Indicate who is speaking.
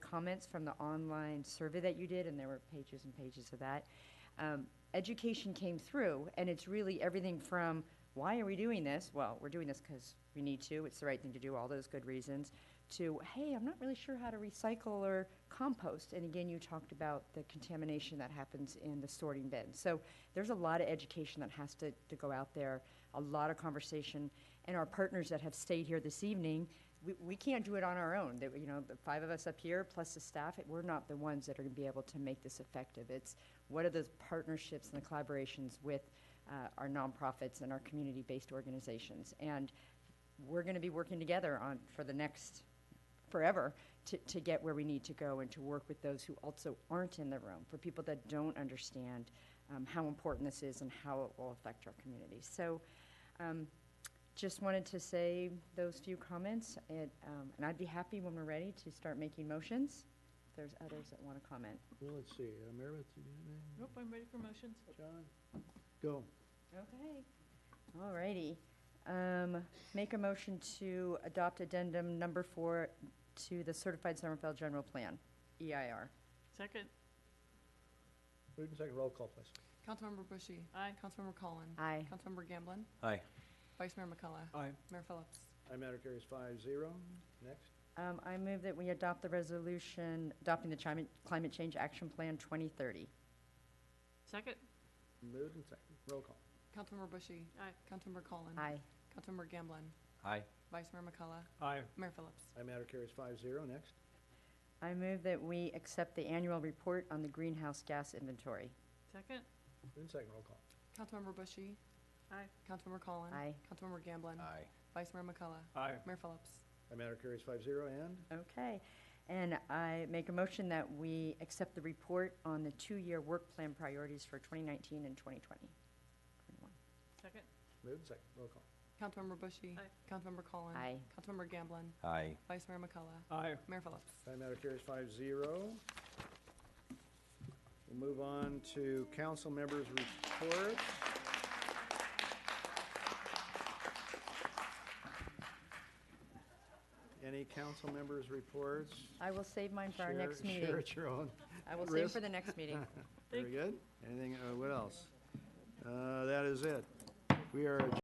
Speaker 1: comments from the online survey that you did, and there were pages and pages of that. Um, education came through, and it's really everything from, why are we doing this? Well, we're doing this because we need to, it's the right thing to do, all those good reasons, to, hey, I'm not really sure how to recycle or compost. And again, you talked about the contamination that happens in the sorting bin. So there's a lot of education that has to, to go out there, a lot of conversation. And our partners that have stayed here this evening, we, we can't do it on our own. That, you know, the five of us up here, plus the staff, we're not the ones that are gonna be able to make this effective. It's what are those partnerships and the collaborations with, uh, our nonprofits and our community-based organizations? And we're gonna be working together on, for the next forever to, to get where we need to go and to work with those who also aren't in the room, for people that don't understand um, how important this is and how it will affect our community. So um, just wanted to say those few comments, and, um, and I'd be happy when we're ready to start making motions, if there's others that want to comment.
Speaker 2: Well, let's see, uh, Meredith, you got anything?
Speaker 3: Nope, I'm ready for motions.
Speaker 2: John? Go.
Speaker 1: Okay. All righty. Um, Make a motion to adopt addendum number four to the Certified Somerville General Plan, E EIR.
Speaker 3: Second,
Speaker 2: Move in second, roll call, please.
Speaker 4: Councilmember Bushy.
Speaker 3: aye.
Speaker 4: Councilmember Cullen.
Speaker 1: Aye.
Speaker 4: Councilmember Gamblin.
Speaker 5: Aye.
Speaker 4: Vice Mayor McCullough.
Speaker 5: Aye.
Speaker 4: Mayor Phillips.
Speaker 2: I matter carries five zero. Next.
Speaker 1: Um, I move that we adopt the resolution adopting the climate, climate change action plan twenty thirty.
Speaker 3: Second,
Speaker 2: Moved and second, roll call.
Speaker 4: Councilmember Bushy.
Speaker 3: Aye.
Speaker 4: Councilmember Cullen.
Speaker 1: Aye.
Speaker 4: Councilmember Gamblin.
Speaker 5: Aye.
Speaker 4: Vice Mayor McCullough.
Speaker 5: Aye.
Speaker 4: Mayor Phillips.
Speaker 2: I matter carries five zero. Next.
Speaker 1: I move that we accept the annual report on the greenhouse gas inventory.
Speaker 3: second,
Speaker 2: Moved in second, roll call.
Speaker 4: Councilmember Bushy.
Speaker 3: Aye.
Speaker 4: Councilmember Cullen.
Speaker 1: Aye.
Speaker 4: Councilmember Gamblin.
Speaker 5: Aye.
Speaker 4: Vice Mayor McCullough.
Speaker 5: Aye.
Speaker 4: Mayor Phillips.
Speaker 2: I matter carries five zero and
Speaker 1: Okay. And I make a motion that we accept the report on the two-year work plan priorities for twenty nineteen and twenty twenty.
Speaker 3: second,
Speaker 2: moved and second, roll call.
Speaker 4: Councilmember Bushy.
Speaker 3: Aye.
Speaker 4: Councilmember Cullen.
Speaker 1: Aye.
Speaker 4: Councilmember Gamblin.
Speaker 5: Aye.
Speaker 4: Vice Mayor McCullough.
Speaker 5: Aye.
Speaker 4: Mayor Phillips.
Speaker 2: I matter carries five zero. We'll move on to council members' reports. Any council members' reports?
Speaker 1: I will save mine for our
Speaker 2: Share-
Speaker 1: next
Speaker 2: Share
Speaker 1: meeting.
Speaker 2: at your own
Speaker 1: I will save
Speaker 2: risk.
Speaker 1: for the next meeting.
Speaker 2: Very good. Anything, uh, what else? Uh, That is it. We are.